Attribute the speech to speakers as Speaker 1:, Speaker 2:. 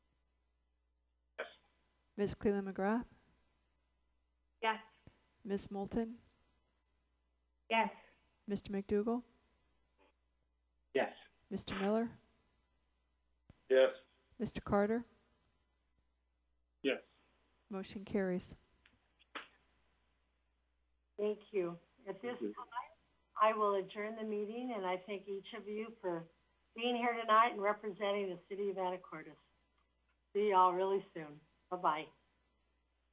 Speaker 1: Ms. Cleland McGrath,
Speaker 2: Yes.
Speaker 1: Ms. Moulton,
Speaker 2: Yes.
Speaker 1: Mr. McDougall,
Speaker 3: Yes.
Speaker 1: Mr. Miller,
Speaker 3: Yes.
Speaker 1: Mr. Carter,
Speaker 3: Yes.
Speaker 1: motion carries.
Speaker 4: Thank you. At this
Speaker 3: you.
Speaker 4: time, I will adjourn the meeting, and I thank each of you for being here tonight and representing the city of Anacortes. See y'all really soon. Bye-bye.